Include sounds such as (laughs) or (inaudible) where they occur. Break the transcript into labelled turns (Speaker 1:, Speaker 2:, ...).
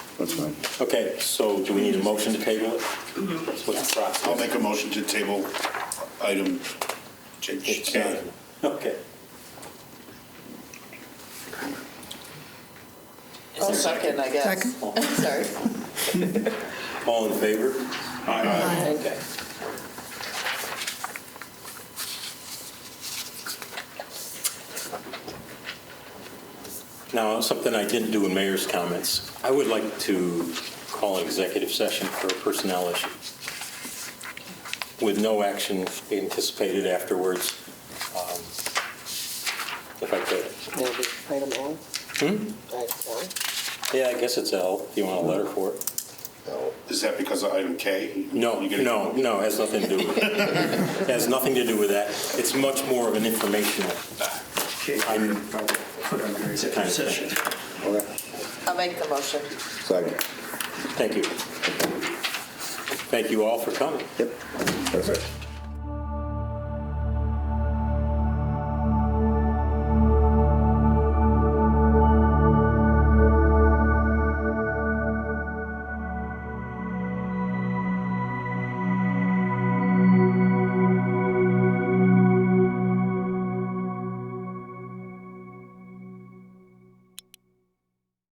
Speaker 1: That's fine.
Speaker 2: Okay, so do we need a motion to table it? What's the
Speaker 3: I'll
Speaker 2: process?
Speaker 3: make a motion to table item J-
Speaker 2: It's
Speaker 3: K.
Speaker 2: done. Okay.
Speaker 4: Is there a second, I guess?
Speaker 5: Second.
Speaker 4: (laughs) Sorry.
Speaker 2: All in favor? Okay. Now, something I didn't do in mayor's comments, I would like to call an executive session for a personnel issue with no action anticipated afterwards, um, if I could. Hmm?
Speaker 4: It'll be item L.
Speaker 2: Yeah, I guess it's L, if you want a letter for it.
Speaker 3: Is that because of item K?
Speaker 2: No,
Speaker 3: You gonna-
Speaker 2: no, no, it has nothing to do with it. It has nothing to do with that. It's much more of an informational. I'm-
Speaker 6: Executive session.
Speaker 1: Okay.
Speaker 4: I'll make the motion.
Speaker 1: Second.
Speaker 2: Thank you. Thank you all for coming.
Speaker 1: Yep. Perfect.